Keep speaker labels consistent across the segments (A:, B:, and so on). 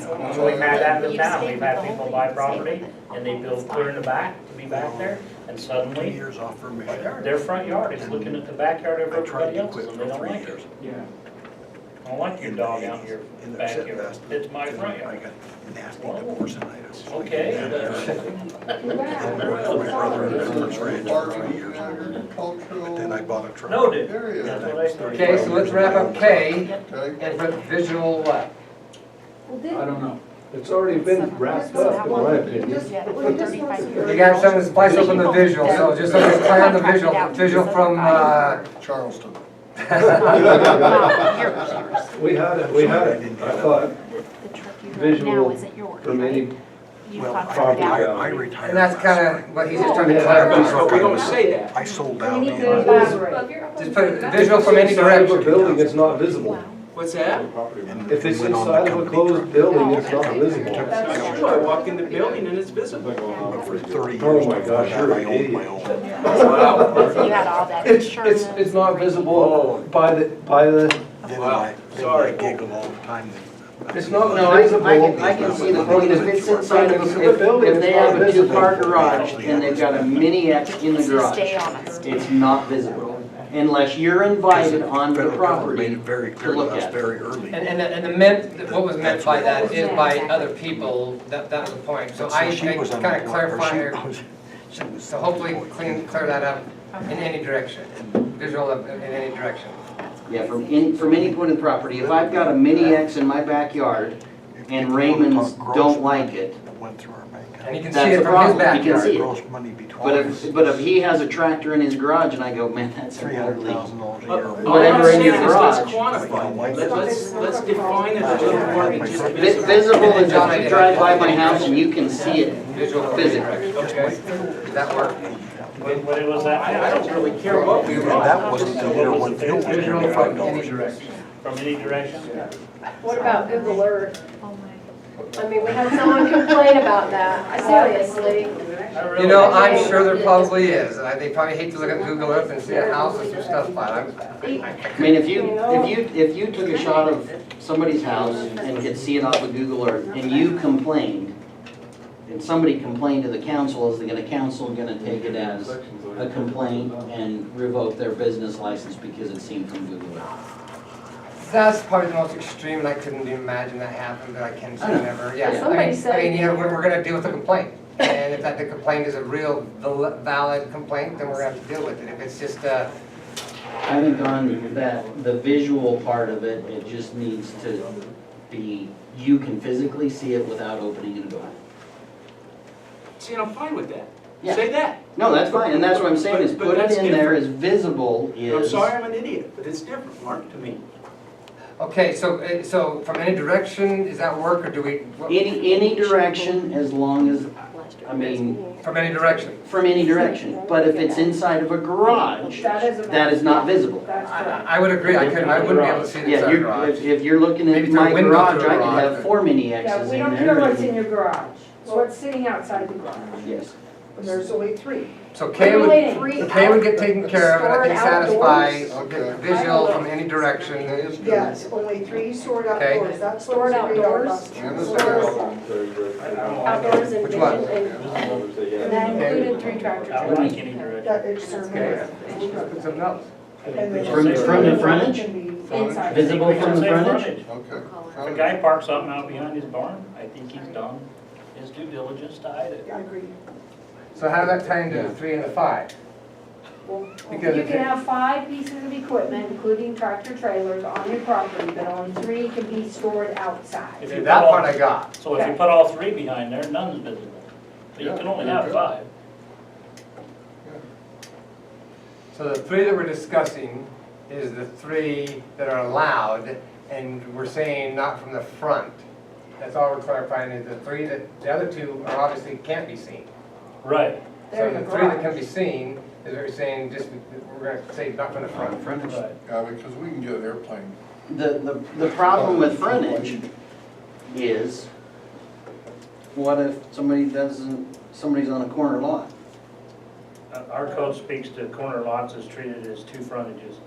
A: So we've had that in the town, we've had people buy property and they build clear in the back to be back there, and
B: Two
A: suddenly
B: years off from my yard.
A: their front yard is looking at the backyard of
B: I tried
A: everybody
B: to
A: else's
B: quit
A: and they
B: for
A: don't
B: three
A: like it.
B: years.
C: Yeah.
A: I don't like your dog out here
B: And they're sitting
A: backyard,
B: past me.
A: it's my front
B: I
A: yard.
B: got nasty
A: Whoa.
B: divorce and I was. like,
A: Okay, uh,
B: "Yeah,
A: that's-
B: My brother
D: This
B: and his
D: is
B: ranch.
D: part of
B: for
D: the
B: years. Then I
D: agricultural
B: bought a truck.
A: noted, that's
D: area.
A: what I said.
E: Okay, so let's wrap up K
D: Okay,
E: and put visual uh, what?
C: I don't know.
F: It's already been wrapped up, in my opinion.
E: You got some of this place open the visual, so just let us plan the visual, visual from, uh,
D: Charleston.
F: We had it, we had it, I thought, visual for many,
B: Well,
F: Farm
B: I- I
F: down.
B: retired.
E: and that's
B: last
E: kinda
B: spring.
E: what he's just trying to
C: But we
E: clarify.
C: don't say that.
B: I sold
G: We
B: out.
G: need to
B: and-
G: elaborate.
E: Just put visual from any direction.
F: a building, it's not visible.
C: What's that?
B: and
F: If it's
B: went on the
F: inside of a
B: company
F: closed building, it's not visible.
G: That's
C: Sure, I walk in the building and it's visible.
B: truck For thirty years.
F: Oh my
B: before
F: gosh,
B: that,
F: you're
B: I
F: an
B: owned my
F: idiot.
B: own.
C: Wow.
H: You had all that
F: It's, it's, it's not
C: Oh.
F: visible by the, by the,
B: Then
C: Wow,
B: I, then I
C: sorry.
B: giggle all the time.
F: it's not
I: No, I,
F: visible.
I: I can, I can see the building, if it's inside, of- if, if they have a two-car garage, and they've got a mini X in the
H: Stay
I: garage,
H: on us.
I: it's not visible, unless you're invited onto the property.
B: Very
I: to
B: clear to
I: look
B: us
I: at.
B: very early.
E: And, and, the- and the meant, what was meant by that is by other people, that, that was the point. So I, I
B: she was on
E: kinda
B: the board, or
E: clarify
B: she
E: here,
B: was- she was
E: so
B: on the
E: hopefully
B: board.
E: clean, clear that up in any direction, visual of- in any direction.
I: Yeah, from in, from any point of the property, if I've got a mini X in my backyard, and Raymond's don't like it,
B: That Went through our bank.
E: And you can see
I: That's
E: it
I: the
E: from his
I: problem. You can
E: backyard.
I: see it.
B: Gross money between.
I: but if, but if he has a tractor in his garage, and I go, man, that's
B: Three
I: an
B: hundred
I: ugly.
B: thousand dollars a
C: But
E: Oh,
C: All
B: year.
C: I'm
I: Whatever in
C: saying
I: your
C: is let's
I: garage.
C: quantify, Let- let's, let's define it a little more than just
I: Vi-
C: visible.
I: Visible is if you drive by my house and you can see it
E: Visual from any
I: physically.
E: direction, okay? Does that work?
A: What what was that?
C: I, I don't really care what we
B: And
C: write.
B: that wasn't the year when fuel was
E: Visual
B: thirty-five
E: from any
B: dollars.
E: direction.
A: From any direction?
G: What about Google Earth?
H: Oh
G: I mean, we had someone complain about that, seriously.
A: I really-
E: You know, I'm sure there probably is, and I- they probably hate to look at Google Earth and see a house with some stuff by it. I'm-
I: I mean, if you, if you, if you took a shot of somebody's house and could see it off of Google Earth, and you complained, and somebody complained to the council, is the gonna- council gonna take it as a complaint and revoke their business license because it seemed from Google Earth?
E: That's probably the most extreme, and I couldn't even imagine that happened, but I can say
I: Uh-huh.
E: never, yeah. I mean-
G: Somebody said-
E: I mean, you know, we're, we're gonna deal with the complaint, and if that, the complaint is a real val- valid complaint, then we're gonna have to deal with it. If it's just, uh,
I: I think on that, the visual part of it, it just needs to be, you can physically see it without opening a door.
C: See, and I'm fine with that.
I: Yeah.
C: Say that.
I: No, that's fine, and that's what I'm saying, is
C: But- but
I: put it
C: that's
I: in there as visible is.
C: I'm sorry I'm an idiot, but it's different, Mark, to me.
E: okay, so, uh, so from any direction, is that work, or do we? what-
I: Any, any direction, as long as, I mean,
E: From any direction?
I: from any direction, but if it's inside of a garage, that is not visible.
E: I, I would agree, I couldn't, I wouldn't be able to see this
I: Yeah,
E: out of
I: you're,
E: garage.
I: if, if you're looking at
E: Maybe through a
I: my
E: window
I: garage,
E: to a
I: I could
E: garage,
I: have
E: but-
I: four mini
J: Yeah,
I: X's
J: we
I: in
J: don't care what's in
I: there.
J: your garage, it's what's sitting outside the garage.
I: Yes,
J: There's only three.
E: So K
J: Relating.
E: would, K would get taken care of, and I think
J: Stored
E: satisfy
D: outdoors.
E: visual from any direction.
J: Yes, only three stored
E: Okay.
J: that's. Stored outdoors.
D: And the sale.
G: Outdoors and
E: Which one?
G: vision and.
J: That
G: included three tractors.
A: I don't like any direction.
J: That is
E: Okay. Something else?
I: From- from the frontage?
G: Inside.
I: Visible from the
A: Say
I: frontage?
D: Okay.
A: If a guy parks something out behind his barn, I think he's done his due diligence to hide it.
J: I agree.
E: So how does that tie into the three and the five?
J: You
E: Because
J: can
E: if it-
J: have five pieces of equipment, including tractor trailers, on your property, but only three can be stored outside.
A: If
E: See,
A: you
E: that
A: put all-
E: part I got.
A: So if you put all three behind there, none's visible. But you can only have five.
E: So the three that we're discussing is the three that are allowed, and we're saying not from the front. That's all we're clarifying, is the three that, the other two are obviously can't be seen.
A: Right,
J: They're
E: So
J: in
E: the
J: the
E: three that can
J: garage.
E: be seen, is what we're saying, just, we're gonna say not from the front.
D: Frontage,
A: right.
D: yeah, because we can get an airplane.
I: The, the, the problem with frontage is, what if somebody doesn't, somebody's on a corner lot?
A: Uh, Our code speaks to corner lots as treated as two frontages.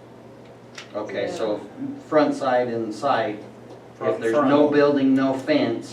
I: Okay, so front side and side, if there's
A: Front.
I: no building, no fence,